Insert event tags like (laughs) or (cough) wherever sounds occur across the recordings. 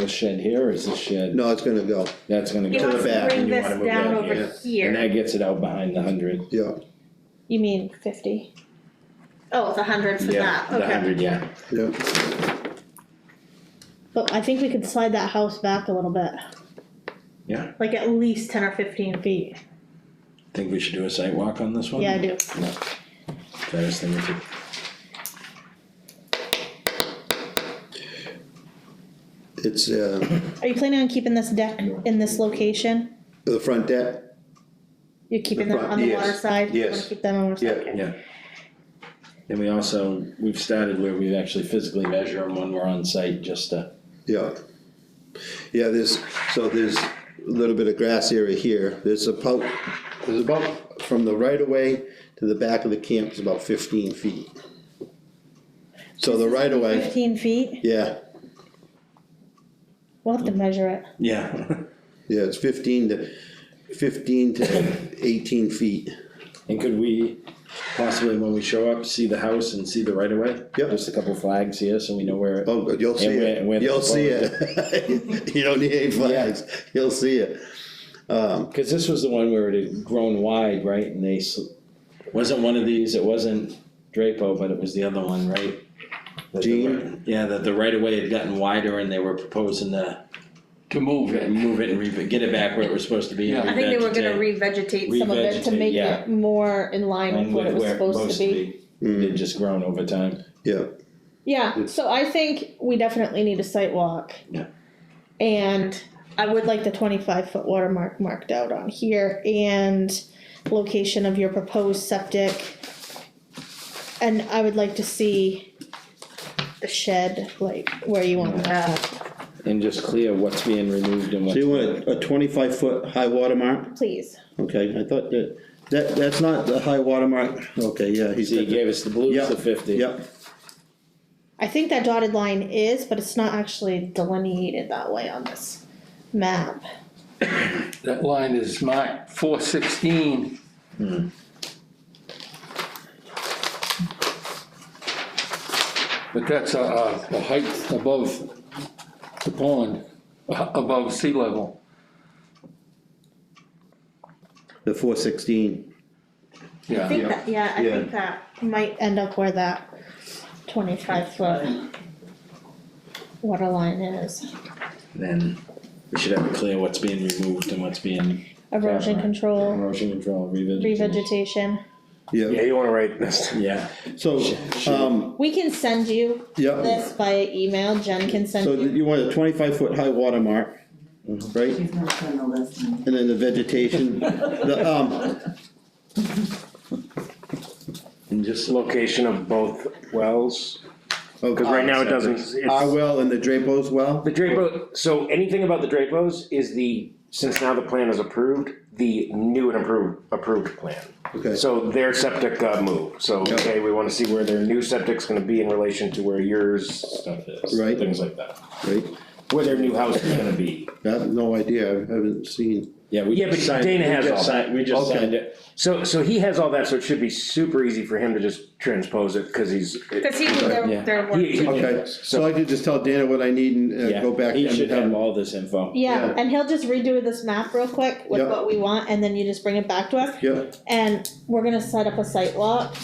The shed here or is the shed, No, it's gonna go, that's gonna He go, To the wants to back. bring And you wanna this move down that over here. and here, that gets it out behind the hundred. yeah, you mean fifty? Oh, it's a hundred for Yeah, that, the okay, hundred, yeah. yeah, But I think we could slide that house back a little bit. like at least ten or fifteen feet, Think we should do a site walk on this one? Yeah, I do. Fairest thing we could, it's, uh, Are you planning on keeping this deck in this location? the front deck, You're keeping The them front, on the yes, water side? You wanna yes. Keep them on the Yeah. side, okay. yeah. And we also, we've started where we actually physically measure them when we're on site, just to, yeah. Yeah, there's, so there's a little bit of grass area here, there's about, there's about, from the right of way to the back of the camp is about fifteen feet. So the right of way, Fifteen feet? yeah, We'll have to measure it. yeah. yeah, it's fifteen to, fifteen to eighteen feet, (laughs) And could we possibly, when we show up, see the house and see the right of way? Yep. Just a couple flags here, so we know where, oh, good, you'll see And it, where- where the you'll see it. (laughs) You don't need any flags, you'll see it, cause this was the one where it had grown wide, right, and they, sl- wasn't one of these, it wasn't Drapo, but it was the other one, right? That the Gene? right- Yeah, that the right of way had gotten wider and they were proposing to to move it. move it and re- get it back where it was supposed to be. and Yeah. I think they were gonna revegetate. revegetate Re- some, Some of it to Revegetate, make yeah. it more in line with And what it with was where supposed to be. Mm. They'd just grown over time. yeah, Yeah, so I think we definitely need a site walk. Yeah. And I would like the twenty-five foot watermark marked out on here and location of your proposed septic. And I would like to see the shed, like where you want that, And just clear what's being removed and so what's. you want a twenty-five foot high water mark? please. Okay, I thought that, that, that's not the high water mark. okay, yeah, he's. So you gave us the blues, the fifty. Yep, I think that dotted line is, but it's not actually delineated that way on this map. That line is marked four sixteen. But that's a, a, a height above the pond, a- above sea level. the four sixteen, I think Yeah, that, yeah, I Yeah. think that, might end up where that twenty-five foot water line is. Then we should have it clear what's being removed and what's being Erosion Yeah. control, erosion control, revegetation. revegetation. yeah, you wanna write this. Yeah, so, um, We can send you yeah, this via email, Jen can so send you. you want a twenty-five foot high water mark, right? She's not gonna the list. And then the vegetation, the, um, and just, Location of both wells, cause okay, right now it doesn't, it's, our well and the Drapo's well, the Drapo, so anything about the Drapos is the, since now the plan is approved, the new and approved, approved plan. okay, So their septic got moved, so, Yeah. okay, we wanna see where their new septic's gonna be in relation to where yours stuff is, Right. things like that. great, Where their new house is gonna be, I have no idea, I haven't seen, yeah, we Yeah, just but signed, we Dana has just all that. signed, we just Okay. signed it. so, so he has all that, so it should be super easy for him to just transpose it, cause he's. cause he was Yeah. their, their He- he- work, okay, so I could just tell Dana what I need and uh, Yeah, go back He and should have have, all this info. Yeah, Yeah. and he'll just redo this map real quick with Yeah. what we want, and then you just bring it back to us, yeah, and we're gonna set up a site walk.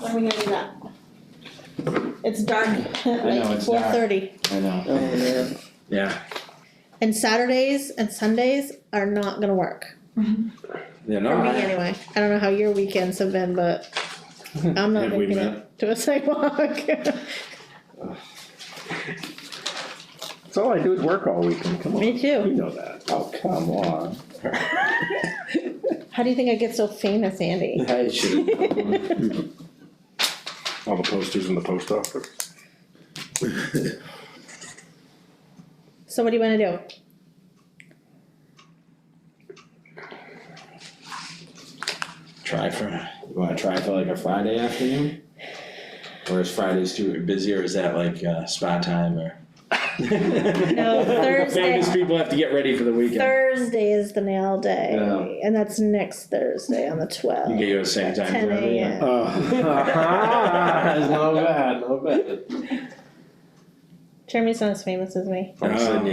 When are we gonna do that? It's dark, know, (laughs) like it's four dark. thirty. I know, oh, man, yeah, And Saturdays and Sundays are not gonna work you for me know, anyway. I don't know how your weekends have been, (laughs) but I'm not Have we making it to a sidewalk. (laughs) That's all I do is work all weekend, come on, Me you too. know that. Oh, come on. How do you think I get so famous, Andy? I should, All the posters in the post office. So what do you wanna do? try for, you wanna try for like a Friday afternoon? Or is Fridays too busy, or is that like, uh, spa time or? (laughs) No, Thursday. Famous people have to get ready for the weekend. Thursday is the nail day, Yeah. and that's next Thursday on the You get twelfth. you at the same time. Ten for everything. (laughs) AM. Uh, (laughs) Not bad, not bad. Jeremy's not as famous as me. Um,